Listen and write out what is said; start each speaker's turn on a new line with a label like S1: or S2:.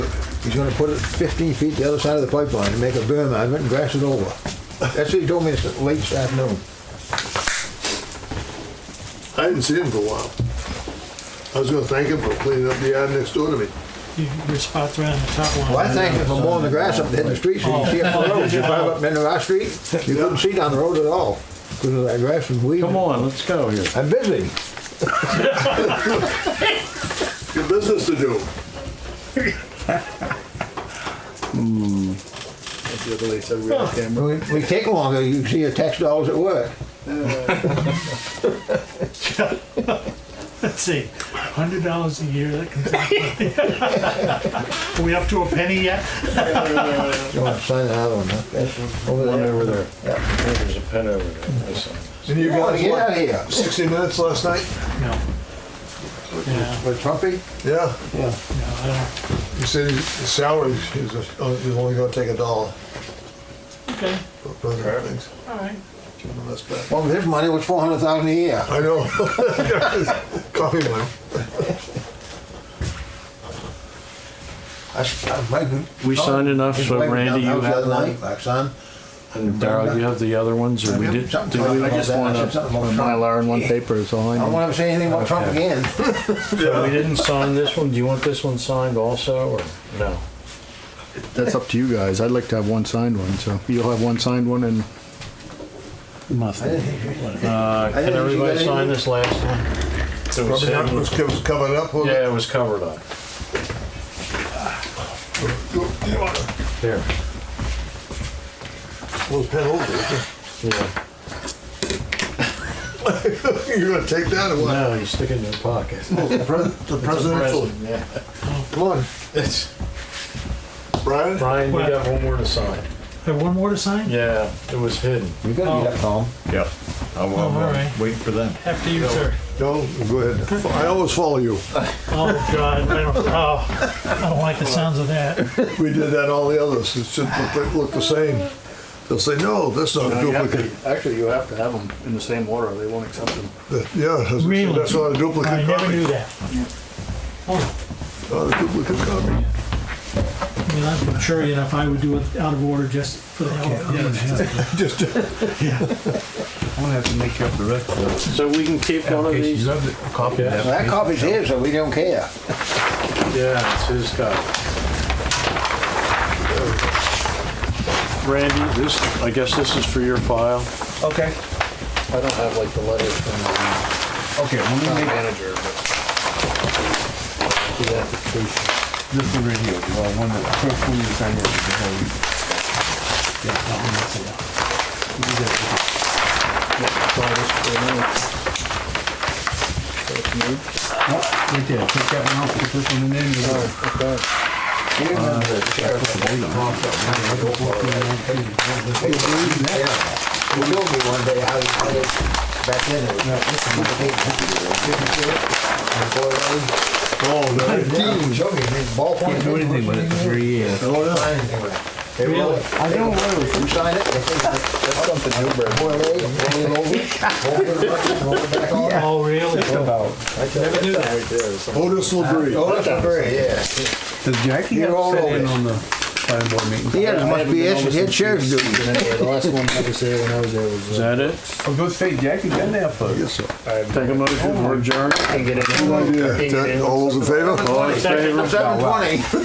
S1: He's gonna put it fifteen feet the other side of the pipeline and make a berm out of it and grass it over. That's what he told me this late this afternoon.
S2: I hadn't seen him for a while. I was gonna thank him for cleaning up the yard next door to me.
S3: You- Your spot's right on the top one.
S1: Well, I thank him for mowing the grass up there in the street, so you can see up the road. You drive up into our street, you couldn't see down the road at all, because of that grass and weed.
S4: Come on, let's go here.
S1: I'm busy.
S2: Good business to do. Hmm.
S5: The other lady said we had a camera.
S1: We, we take longer, you see your tax dollars at work.
S3: Let's see, hundred dollars a year, that comes out. Are we up to a penny yet?
S1: You want to sign another one, huh? That's Over
S4: One
S1: there.
S4: over there. There's a pen over there. I saw.
S2: And you
S1: You want
S2: guys,
S1: to get out
S2: what,
S1: of here.
S2: sixty minutes last night?
S3: No. Yeah,
S1: With Trumpy?
S2: Yeah,
S1: Yeah.
S3: no, I
S2: he said his his salary is, is oh, only gonna take a dollar
S3: don't, okay,
S2: for other things.
S3: all right.
S2: Give him this back.
S1: Well, with his money, it was four hundred thousand a year.
S2: I know. Coffee money.
S1: I, s- I- my-
S4: We signed enough,
S1: His
S4: so
S1: wife was
S4: Randy,
S1: down
S4: you
S1: the house
S4: have
S1: the other
S4: one?
S1: night, My son.
S4: And Darrell, you have the other ones, or we did?
S1: Something
S4: did
S1: about
S4: we
S1: that. I
S4: just
S1: said
S4: want
S1: something about
S4: a
S1: Trump.
S4: Mylar and one paper is all
S1: I
S4: I
S1: don't
S4: need.
S1: want to say anything about Trump
S4: Okay.
S1: again.
S4: So we didn't sign this one, do you want this one signed also, or no?
S5: That's up to you guys. I'd like to have one signed one, so you'll have one signed one and.
S4: Nothing. Uh,
S1: didn't
S4: can
S1: think you
S4: everybody
S1: got
S4: sign
S1: any-
S4: this last one? It was
S2: Probably not,
S4: him.
S2: was co- was covered up. wasn't
S4: Yeah,
S2: it?
S4: it was covered up.
S2: You want a
S4: There,
S2: little pen over
S4: yeah.
S2: it. You're gonna take that or what?
S4: No, you stick it in your pocket.
S2: The pres- the presidential,
S4: Yeah.
S2: come on,
S4: It's-
S2: Brian?
S4: Brian, you got one more to sign.
S3: Have one more to sign?
S4: Yeah, it was hidden.
S1: You gotta be up
S4: Oh.
S1: calm.
S5: Yep. I
S3: Oh,
S5: will,
S3: all right.
S5: wait uh, for them.
S3: After you, sir.
S2: No, go ahead. I always follow you.
S3: Oh, God, I don't, oh, I don't like the sounds of that.
S2: We did that all the others. It should look, look the same. They'll say, no, that's not a
S5: You have
S2: duplicate.
S5: to- Actually, you have to have them in the same order. They won't accept them.
S2: Yeah, that's-
S3: Really?
S2: that's not a
S3: I
S2: duplicate
S3: never knew
S2: copy.
S3: that. Oh,
S2: Not a duplicate copy.
S3: I mean, I'm sure enough I would do it out of order just for the hell of it.
S2: Just,
S5: I'm gonna have to make up the rest of those.
S4: So we can keep one of these?
S5: Copy
S4: Yeah.
S1: Well, that copy's his, so we don't care.
S4: Yeah, it's his copy. Randy, this, I guess this is for your file.
S5: Okay,
S4: I don't have like the letter from
S5: okay, let me make
S4: manager, but.
S5: this one right here. Well, one of the first one you sign is the whole. Yeah, that one, that's enough. You do that. Yep, Right there, take that one off, put this one in there. and you're good.
S1: You remember the sheriff of the Yeah. He told me one day how he did it back then. It was complicated. Didn't you? And boy, that
S2: oh,
S1: was-
S2: no.
S1: Yeah, he showed me, he ballpoint
S5: Can't do anything with it for three years.
S1: No, no. Sign anything with it. They roll it.
S5: I don't know.
S1: You sign it, they take it,
S5: That's something new, bro.
S1: boil it, roll it over, fold it around, roll it back on.
S3: Oh, really?
S5: About.
S1: Never do that.
S2: Otis Labrie.
S1: Oh, that's a very, yeah.
S5: Does Jackie
S1: You're
S5: have
S1: all
S5: set in
S1: over.
S5: on the fire board meeting?
S1: He had- must be his- his sheriff's duty.
S5: The last one I was there when I was there was. uh,
S4: Is that it?
S5: I was gonna say, Jackie's been there for. Yes, sir.
S4: Take a motion for adjourn.
S2: No idea. Is that- All those in favor?
S4: All in favor?
S1: Seven twenty.